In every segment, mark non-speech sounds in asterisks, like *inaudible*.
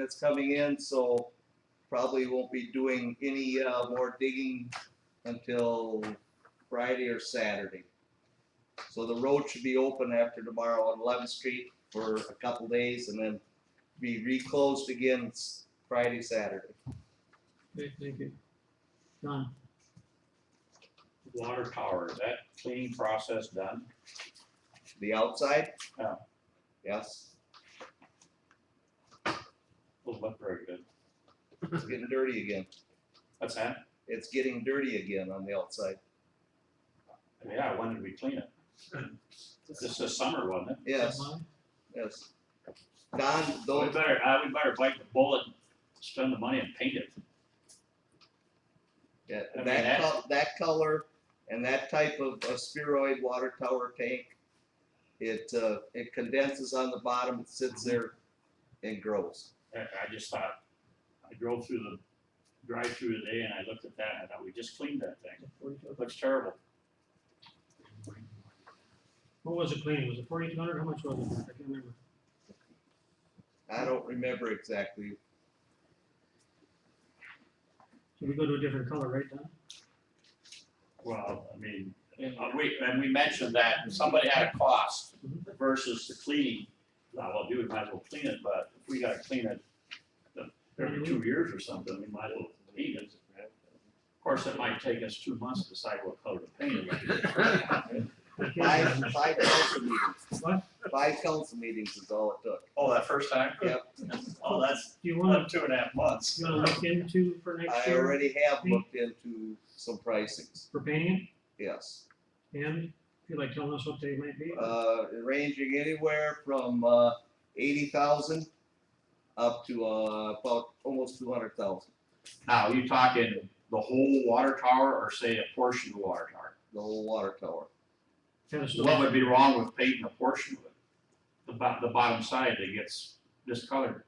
that's coming in, so probably won't be doing any, uh, more digging until Friday or Saturday. So the road should be open after tomorrow on Eleventh Street for a couple days and then be reclosed again s- Friday, Saturday. Okay, thank you. Don, water tower, is that cleaning process done? The outside? Yeah. Yes, Doesn't look very good. it's getting dirty again. That's that? It's getting dirty again on the outside. Yeah, when did we clean it? This is summer, wasn't it? Yes, Don, yes. Don, We don't, better, uh, we better bite the bullet, and spend the money and paint it. yeah, I mean, that that- col- that color and that type of, of spheroid water tower tank, it, uh, it condenses on the bottom, it sits Mm-hmm. there and grows. I, I just thought, I drove through the drive-through today and I looked at that and I thought, we just cleaned that thing. It looks terrible. What was it cleaning? Was it forty-two hundred? How much was it? I can't remember. Mm-hmm. I don't remember exactly. Should we go to a different color, right, *laughs* Don? Well, I mean, uh, we, and we mentioned that somebody had a cost versus the cleaning. Now, well, dude, might as well clean it, but if we gotta clean it uh, every two years or something, we might as well clean it. Of course, it might take us two months to decide what color to paint it. I Five, can't remember. five council meetings. What? Five council meetings is all it took. Oh, that first time? Yep. Oh, that's Do you wanna, one, two and a half months. you wanna look into for next I year already have looked into some pricings, for painting yes. it? And if you'd like telling us what they might be? Uh, ranging anywhere from, uh, eighty thousand up to, uh, about almost two hundred thousand, Now, are you talking the whole water tower or say a portion of the water tower? the whole water tower. Kind of What stuff. would be wrong with painting a portion of it? The bo- the bottom side that gets discolored.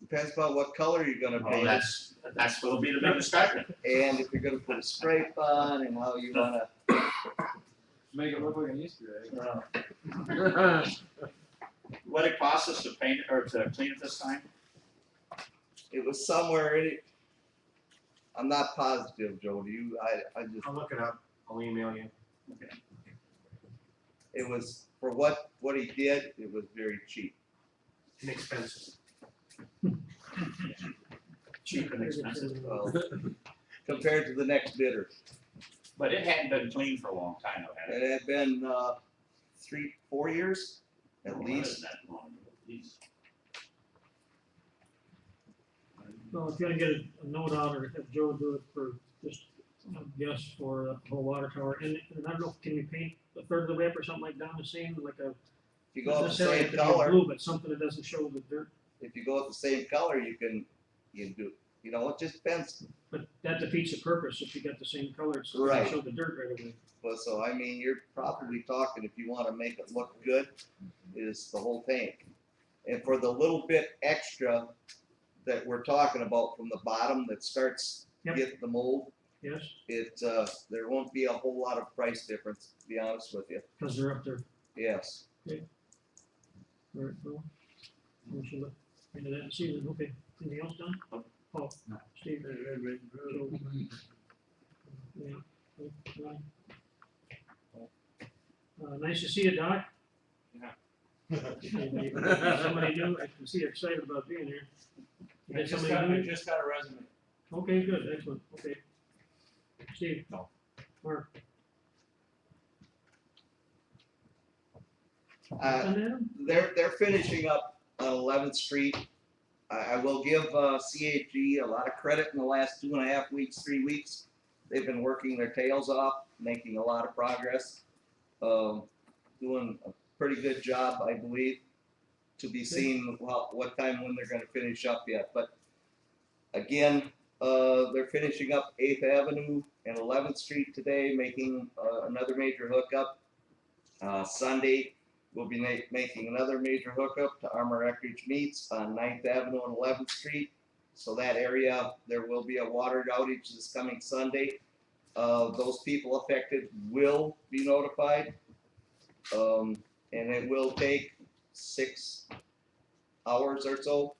Depends upon what color you're gonna Well, paint it, Oh, that's, that's what'll be the big discussion. and if you're gonna put a scrape on and how you wanna, Make it look like an Easter egg. Uh, *laughs* What it costs us to paint or to clean it this time? it was somewhere in it. I'm not positive, Joe, do you, I, I just, I'll look it up. I'll email you. it was, for what, what he did, it was very cheap. Inexpensive. Cheap and expensive, Well, compared to the next bidder. but it hadn't been cleaned for a long time, though, had it? It had been, uh, three, four years Well, at it least. wasn't that long ago, at least. Well, if you wanna get a a note out or have Joe do it for just, a guess for the whole water tower. And and I don't know, can we paint a third of the way up or something like Don was saying, like a, If you go not with the necessarily same have to be color, blue, but something that doesn't show the dirt if you go with the same color, you can, you can do, you know, it just depends. But that defeats the purpose if you got the same colors, so Right. you show the dirt right away. But so, I mean, you're probably talking, if you wanna make it look good, is the whole tank. And for the little bit extra that we're talking about from the bottom that starts Yep. getting the mold, Yes, it, uh, there won't be a whole lot of price difference, to be honest with you. because they're up there. Yes. All right, well, we should look into that and see, then, okay, anything else done? Paul, Steve, Joe. Yeah, okay, Ryan. Uh, nice to see you, Doc. Anybody- Somebody new, I can see you're excited about being here. You I got just somebody got, new? I just got a resume. Okay, good, excellent, okay. Steve? No. Mark? Uh, Done that? they're they're finishing up on Eleventh Street. I, I will give uh, CAG a lot of credit in the last two and a half weeks, three weeks. They've been working their tails off, making a lot of progress, um, doing a pretty good job, I believe. To be seen well, what time when they're going to finish up yet, but again, uh, they're finishing up Eighth Avenue and Eleventh Street today, making uh, another major hookup. Uh, Sunday, We'll be ma- making another major hookup to Armor Eckridge Meats on 9th Avenue and Eleventh Street. So that area, there will be a water outage this coming Sunday. Uh, those people affected will be notified. Um, and it will take six hours or so